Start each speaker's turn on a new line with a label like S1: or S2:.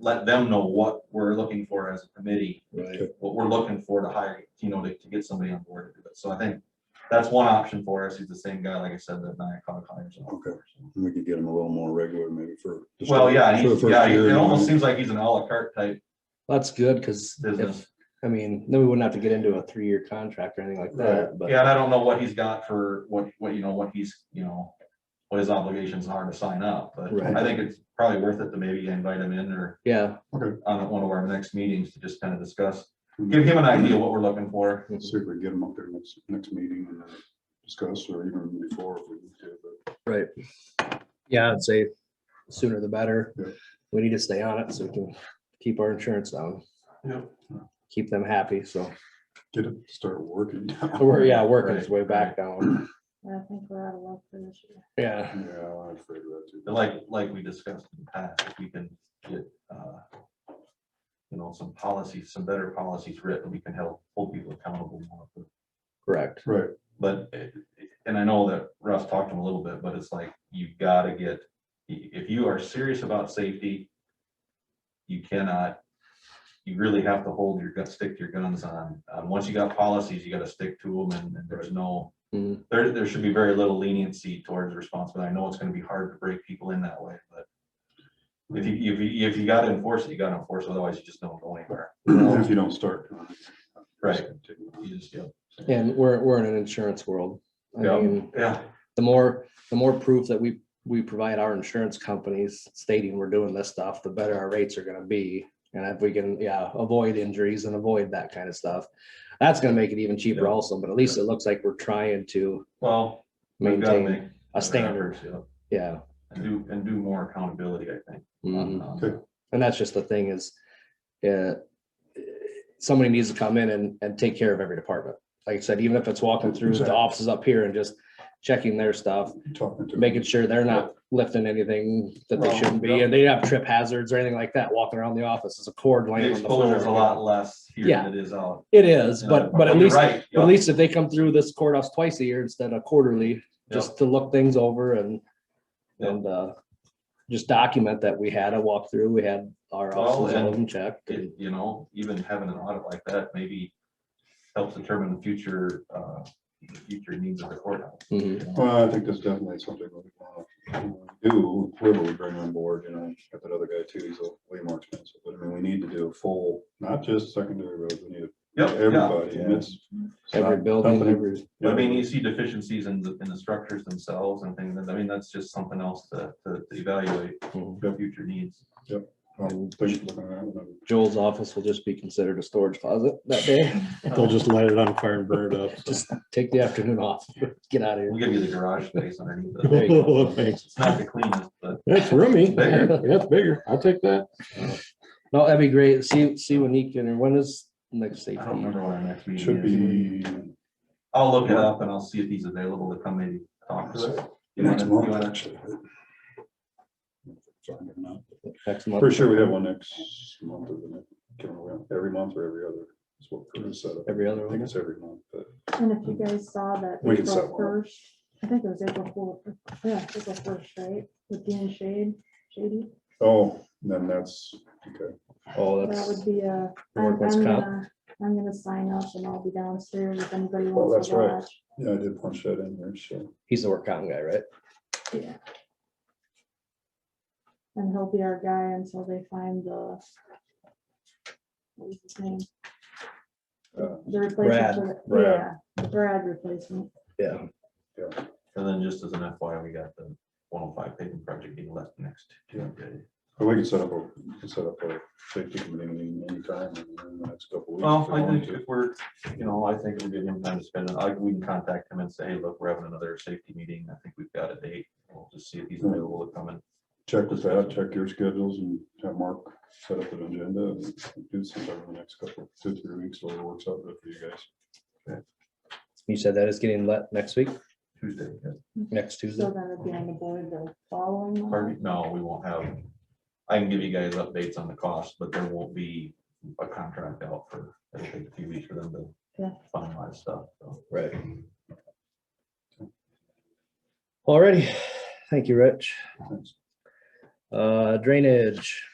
S1: let them know what we're looking for as a committee,
S2: Right.
S1: what we're looking for to hire, you know, to, to get somebody on board to do it. So I think that's one option for us. He's the same guy, like I said, that Nyakog hires. on.
S2: Okay. And We could get them a little more regular maybe for. just
S1: Well, yeah,
S2: for the
S1: he's,
S2: first
S1: yeah,
S2: year,
S1: it
S2: you
S1: almost
S2: know.
S1: seems like he's an à la carte type
S3: That's good, cause
S1: business.
S3: if, I mean, then we wouldn't have to get into a three-year contract or anything like that, but.
S1: Yeah, and I don't know what he's got for, what, what, you know, what he's, you know, what his obligations are to sign up, but
S3: Right.
S1: I think it's probably worth it to maybe invite him in or
S3: Yeah,
S1: on one of our next meetings to just kind of discuss, give him an idea what we're looking for.
S2: See if we can get them up there next, next meeting and uh, discuss or even before if we need to, but
S3: right. Yeah, I'd say sooner the better.
S2: Yeah.
S3: We need to stay on it so we can keep our insurance down.
S1: Yeah.
S3: Keep them happy, so,
S2: get it, to start working.
S3: so we're, yeah, working its
S1: Right,
S3: way back down,
S4: I think we're out of luck for this year.
S3: yeah.
S2: Yeah, I'm afraid of that too.
S1: But Like, like we discussed in the past, if we can get, uh, you know, some policies, some better policies written, we can help hold people accountable more for
S3: Correct,
S2: Right,
S1: But, it- it- and I know that Russ talked to him a little bit, but it's like, you've gotta get, i- if you are serious about safety, you cannot, you really have to hold your, gun- stick to your guns on, on, once you got policies, you gotta stick to them, and, and there's no,
S3: Mhm.
S1: there, there should be very little leniency towards responsibility, I know it's gonna be hard to break people in that way, but if you, if you, if you gotta enforce it, you gotta enforce, it, otherwise you just don't go anywhere.
S2: if you don't start. uh, just
S1: Right.
S2: continue on.
S1: You just, yeah,
S3: and we're, we're in an insurance world. I
S1: Yeah.
S3: mean,
S1: yeah,
S3: the more, the more proof that we, we provide our insurance companies stating we're doing this stuff, the better our rates are gonna be. And if we can, yeah, avoid injuries and avoid that kind of stuff, that's gonna make it even cheaper
S1: Yeah.
S3: also, but at least it looks like we're trying to
S1: well, we've gotta make.
S3: maintain a standard,
S1: Yeah.
S3: yeah.
S1: and do, and do more accountability, I think. Um, on-
S3: Mhm.
S1: on
S2: Good.
S3: And that's just the thing is, uh, somebody needs to come in and, and take care of every department. Like I said, even if it's walking through the
S2: Exactly.
S3: offices up here and just checking their stuff,
S2: Talking to.
S3: making sure they're not lifting anything that they
S1: Well,
S3: shouldn't be,
S1: yeah.
S3: and they have trip hazards or anything like that walking around the office, there's a cord
S1: The
S3: laying on the
S1: exposure is a lot
S3: floor.
S1: less here
S3: Yeah.
S1: than it is out.
S3: It is, but, but at
S1: you're
S3: least, but
S1: right,
S3: at
S1: yeah,
S3: least if they come through this courthouse twice a year instead of quarterly,
S1: Yeah.
S3: just to look things over and,
S1: Yeah.
S3: and, uh, just document that we had a walkthrough, we had our
S1: Well,
S3: offices, all
S1: and
S3: of them checked. and-
S1: it- You know, even having an audit like that maybe helps determine the future, uh, the future needs of the courthouse.
S3: Mhm.
S1: you know?
S2: Well, I think that's definitely something we want to do, whoever we bring on board, you know, got that other guy too, he's a way more expensive, but I mean, we need to do a full, not just secondary roads, we need
S1: Yep, yeah.
S2: everybody, and it's. it's
S3: Every
S2: not
S3: building,
S2: company-
S3: every,
S1: But I mean, you see deficiencies in the, in the structures themselves and things, and I mean, that's just something else to, to to evaluate
S3: Mhm.
S1: the future needs.
S2: Um, we should look at that one.
S3: Joel's office will just be considered a storage closet that day,
S5: They'll just light it on fire and burn it up.
S3: just take the afternoon off, get out of here.
S1: We'll give you the garage space underneath.
S3: There
S1: it.
S3: you go.
S5: Thanks.
S1: It's not the cleanest, but
S5: That's roomy.
S1: Bigger.
S5: That's bigger. I'll take that.
S3: No, that'd be great. See, see when he can, or when is next state?
S1: I don't remember what our next meeting is.
S2: Should be
S1: I'll look it up and I'll see if he's available to come maybe talk to us. You
S2: next
S1: wanna- you
S2: month,
S1: wanna-
S2: actually. Sorry, I'm not-
S3: Next month.
S2: Pretty sure we have one next month, isn't it? Can't remember, every month or every other, is what we're gonna set up.
S3: Every other
S2: I think
S3: one.
S2: it's every month, but.
S4: And if you guys saw that
S2: We can set
S4: April
S2: one
S4: first, I think it was April fourth, yeah, April first, right? With Dean Shade, Shady,
S2: Oh, then that's, okay.
S3: Oh,
S4: that
S3: that's,
S4: would be a.
S3: Or
S4: I'm
S3: what's
S4: I'm uh,
S3: called-
S4: gonna, I'm gonna sign up and I'll be downstairs if anybody
S2: Oh,
S4: wants
S2: that's
S4: to
S2: right.
S4: watch.
S2: Yeah, I did punch that in there, so.
S3: he's the work counting guy, right?
S4: Yeah. And he'll be our guy until they find the. What was his name?
S2: uh,
S4: The replacement. for the-
S2: Brad.
S4: Yeah, the Brad replacement.
S3: Yeah.
S1: And then just as an FYI, we got the one oh five paving project being left next
S2: Yeah.
S1: Tuesday.
S2: But we can set up a, we can set up a safety committee meeting anytime in the next couple weeks.
S1: Well,
S2: if we
S1: I
S2: want
S1: think
S2: to.
S1: if we're, you know, I think we'll give him time to spend, it. I, we can contact him and say, hey, look, we're having another safety meeting. I think we've got a date. We'll just see if
S2: Hmm.
S1: he's available to come in.
S2: Check with that, check your schedules and have Mark set up an agenda and do something over the next couple, two, three weeks, so it works out good for you guys.
S3: You said that is getting let next week,
S1: Tuesday. yeah.
S3: next Tuesday.
S4: So then it'll be on the board the following. month.
S1: Pardon me? No, we won't have, I can give you guys updates on the cost, but there won't be a contract out for, it'll take a few weeks for them to
S4: Yeah.
S1: finalize stuff. so.
S3: Right. Alrighty, thank you, Rich.
S2: Thanks.
S3: Uh, drainage,